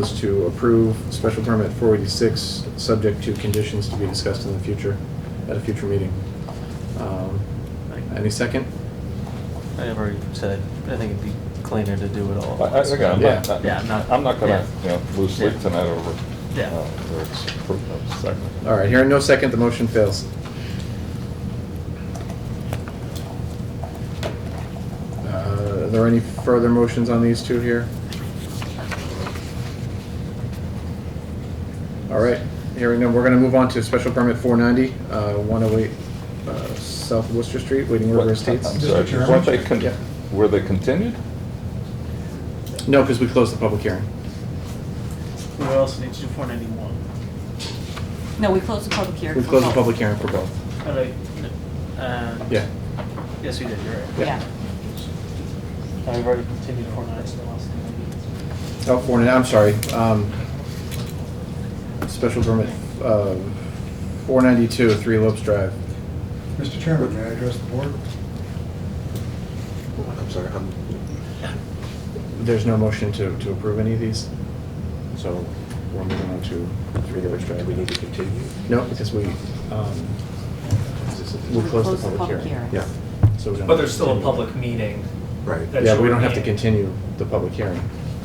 is to approve special permit 486, subject to conditions to be discussed in the future, at a future meeting. Um, Any second? I have already said, I think it'd be cleaner to do it all. I, at I, once. again, I'm Yeah. not, not- Yeah, I'm not- I'm not gonna, yeah. you know, lose Yeah. sleep tonight over. Yeah. uh, whether it's approved or seconded. All right, hearing no second, the motion fails. Uh, Are there any further motions on these two here? All right, hearing none, we're going to move on to special permit 490, uh, 108 uh, South Worcester Street, Wading What- River Estates. I'm Mr. sorry, Chairman? weren't they con- Yeah. Were they continued? No, because we closed the public hearing. We also need to do four ninety-one. No, we closed the public hearing. We for closed the both. public hearing for both. All right. uh, Yeah, Yes, we did, you're right. yeah. Yeah. And we've already continued four ninety, so the last thing Oh, 490, I'm sorry. um, Special permit uh, 492, 3 Lopes Drive. Mr. Chairman, may I address the board? I'm sorry, I'm, There's no motion to, to approve any of these, so, we're moving on to three 3 Lopes minutes, do we Drive. need to continue? No, because we, um, we'll We close closed the public hearing. Yeah, So we don't have to But there's still a continue. public meeting. right. that Yeah, you we would don't have be to in. continue the public hearing.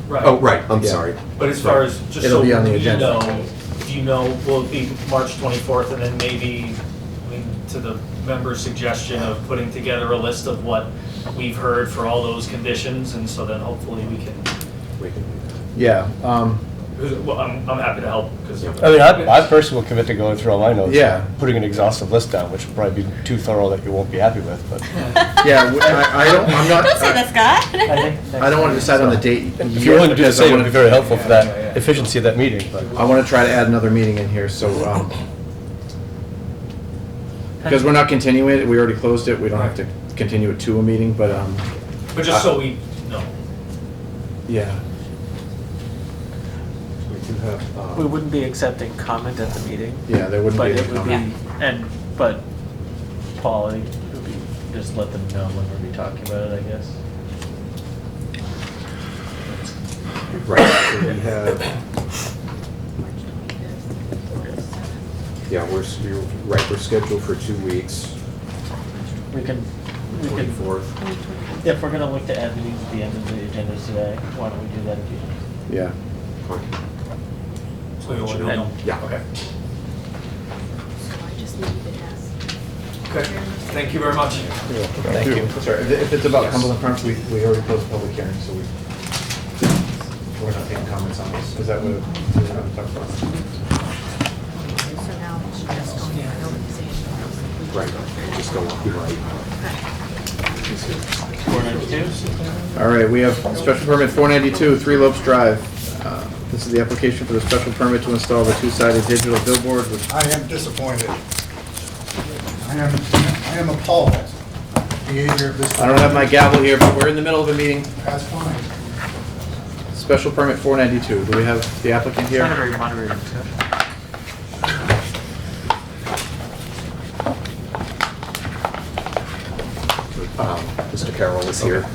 Right. Oh, right, I'm Yeah. sorry. But as far as, just It'll so be we on the agenda. know, do you know, will it be March 24th and then maybe, I mean, to the member's suggestion of putting together a list of what we've heard for all those conditions, and so then hopefully we can, We can do that. Yeah, um, because, well, I'm, I'm happy to help, because. I mean, I, I personally will commit to going through all my notes. Yeah. Putting an exhaustive list down, which will probably be too thorough that you won't be happy with, but yeah, we- I, I don't, I'm not. Don't say that, Scott. I don't want to decide on the date. if you're willing to do the because I same, it would wanna- be very helpful for Yeah, yeah, yeah. that efficiency of that meeting, but. I want to try to add another meeting in here, so, um, because we're not continuing it, we already closed it, we don't have to continue it to a meeting, but, um, But just so we know. yeah. We do have, we uh, need. We wouldn't be accepting comment at the meeting, Yeah, there wouldn't but be. it any would be, comment. and, but, Paul, it would be, just let them know when we'll be talking about it, I guess. Right, so we have, yeah, we're, s- you're right, we're scheduled for two weeks, We can, we can, twenty-fourth. if we're gonna look to add these at the end of the agendas today, why don't we do that again? Yeah. So we want to know. Yeah. Okay. So I just needed to ask. Okay, thank you very much. Thank you. Sorry, if- if it's about Cumberland Farms, we, we already closed the public hearing, so we, we're not taking comments on this. Is that what, is that what I'm talking about? So now it's just going to organization. Right, I just don't want to be right. Four ninety-two? All right, we have special permit 492, Three Lopes Drive. Uh, This is the application for the special permit to install the two-sided digital billboard, which, I am disappointed. I am, I am appalled at the behavior of this. I don't have my gavel here, but we're in the middle of a meeting. That's fine. Special permit 492, do we have the applicant here? Moderator, moderator discussion. Um, Mr. Carroll is here.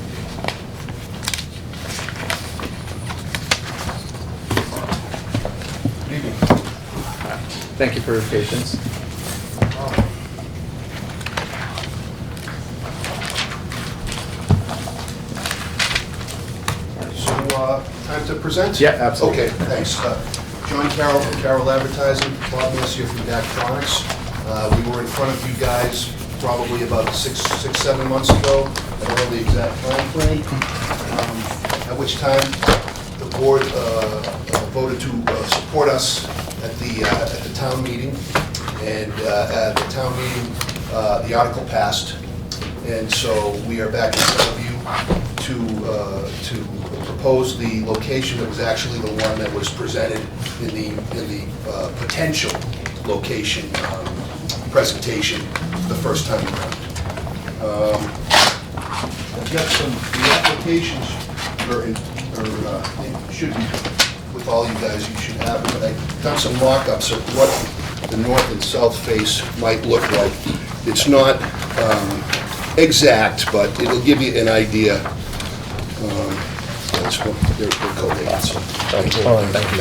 Thank you for your patience. So, uh, time to present? Yeah, absolutely. Okay, thanks. Uh, John Carroll from Carroll Advertising, Bob Messier from Daktronics. Uh, We were in front of you guys probably about six, six, seven months ago. I don't know the exact timeframe, um, at which time the board uh, voted to uh, support us at the, uh, at the town meeting. And uh, at the town meeting, uh, the article passed. And so we are back in front of you to, uh, to propose the location that was actually the one that was presented in the, in the uh, potential location um, presentation the first time around. Um, I've got some, the applications are, in- are, uh, it should be with all you guys, you should have, them, but I've done some mock-ups of what the north and south face might look like. It's not um, exact, but it'll give you an idea um, it's, they're they're co-leads. Thank you. um, Thanks.